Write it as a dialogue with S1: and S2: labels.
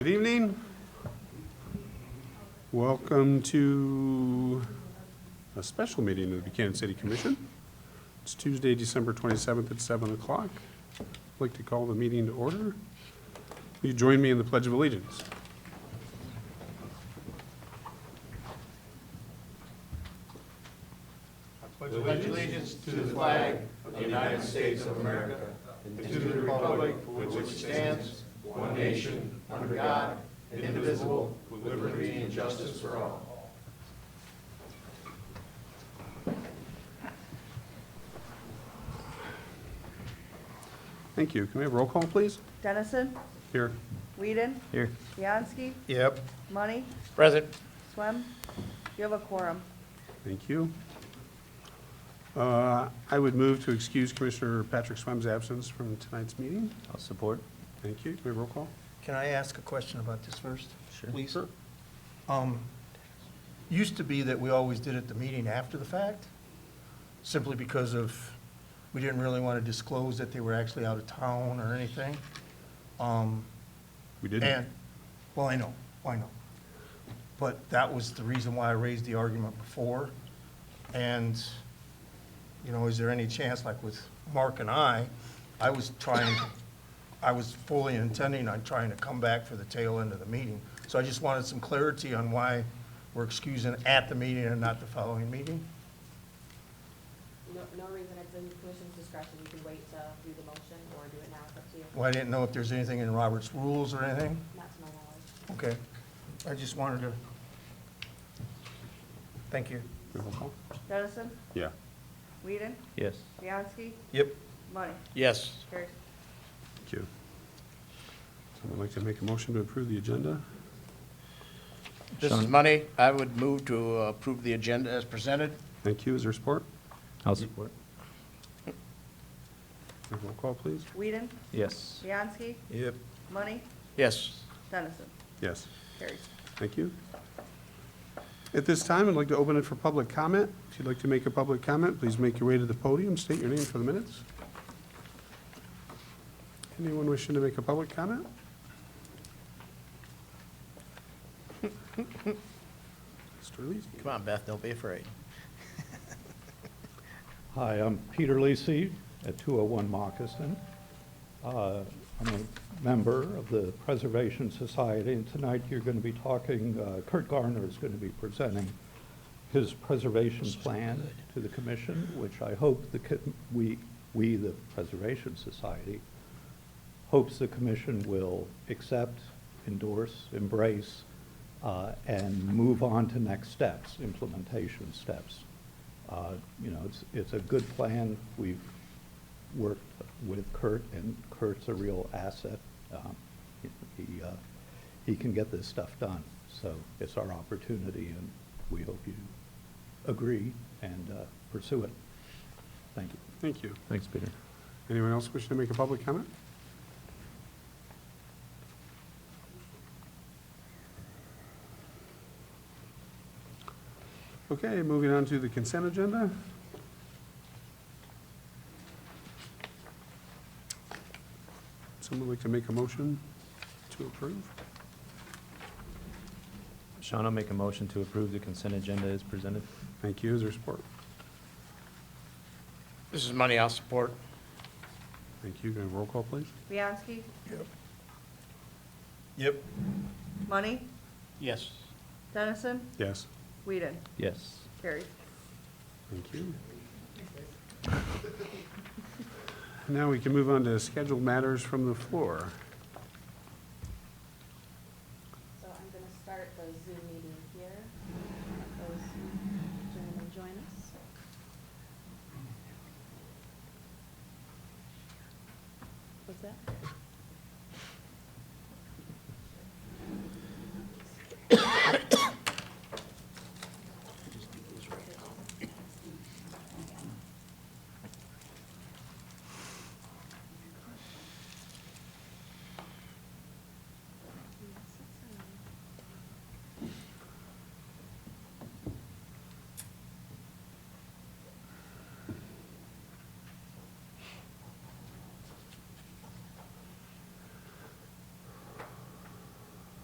S1: Good evening. Welcome to a special meeting of the Buchanan City Commission. It's Tuesday, December 27th at 7 o'clock. I'd like to call the meeting to order. Will you join me in the Pledge of Allegiance? Thank you. Can we have roll call, please?
S2: Dennison,
S1: Here.
S2: Whedon,
S3: Here.
S2: Bianski,
S3: Yep.
S2: Money,
S3: Present.
S2: Swem. You have a quorum.
S1: Thank you. Uh, I would move to excuse Commissioner Patrick Swem's absence from tonight's meeting.
S3: I'll support.
S1: Thank you. Can we have roll call?
S4: Can I ask a question about this first?
S3: Sure.
S4: Please. Um, Used to be that we always did it the meeting after the fact, simply because of, we didn't really want to disclose that they were actually out of town or anything. Um,
S1: We
S4: And, well, I know, I know. But that was the reason why I raised the argument before. And, you know, is there any chance, like with Mark and I, I was trying, I was fully intending on trying to come back for the tail end of the meeting. So I just wanted some clarity on why we're excusing at the meeting and not the following meeting.
S5: No, no reason, it's in the commission's discretion, you can wait to do the motion or do it now, it's up to you,
S4: Well, I didn't know if there's anything in Robert's rules or anything.
S5: not to my knowledge.
S4: Okay. I just wanted to, thank you.
S1: Roll call?
S2: Dennison,
S1: Yeah.
S2: Whedon,
S3: Yes.
S2: Bianski,
S4: Yep.
S2: Money.
S3: Yes.
S2: Carries.
S1: Thank you. Someone like to make a motion to approve the agenda?
S6: This is money. I would move to approve the agenda as presented.
S1: Thank you. Is there support?
S3: I'll support.
S1: Roll call, please.
S2: Whedon,
S3: Yes.
S2: Bianski,
S3: Yep.
S2: Money,
S6: Yes.
S2: Dennison.
S1: Yes.
S2: Carries.
S1: Thank you. At this time, I'd like to open it for public comment. If you'd like to make a public comment, please make your way to the podium, state your name for the minutes. Anyone wishing to make a public comment? Mr. Lees?
S6: Come on, Beth, don't be afraid.
S7: Hi, I'm Peter Lisi at 201 Moccasin. Uh, I'm a member of the Preservation Society, and tonight you're going to be talking, uh, Kurt Garner is going to be presenting his preservation plan to the commission, which I hope the, co- we, we, the Preservation Society, hopes the commission will accept, endorse, embrace, uh, and move on to next steps, implementation steps. Uh, You know, it's, it's a good plan. We've worked with Kurt, and Kurt's a real asset. Um, He, uh, he can get this stuff done, so it's our opportunity, and we hope you agree and uh, pursue it. Thank you.
S1: Thank you.
S3: Thanks, Peter.
S1: Anyone else wishing to make a public comment? Okay, moving on to the consent agenda. Someone like to make a motion to approve?
S3: Sean will make a motion to approve the consent agenda as presented.
S1: Thank you. Is there support?
S6: This is money I'll support.
S1: Thank you. Can I have roll call, please?
S2: Bianski,
S4: Yep.
S2: Money,
S6: Yes.
S2: Dennison,
S1: Yes.
S2: Whedon.
S3: Yes.
S2: Carries.
S1: Thank you. Now we can move on to scheduled matters from the floor.
S5: So I'm gonna start the Zoom meeting here, Let those gentlemen join us. What's that?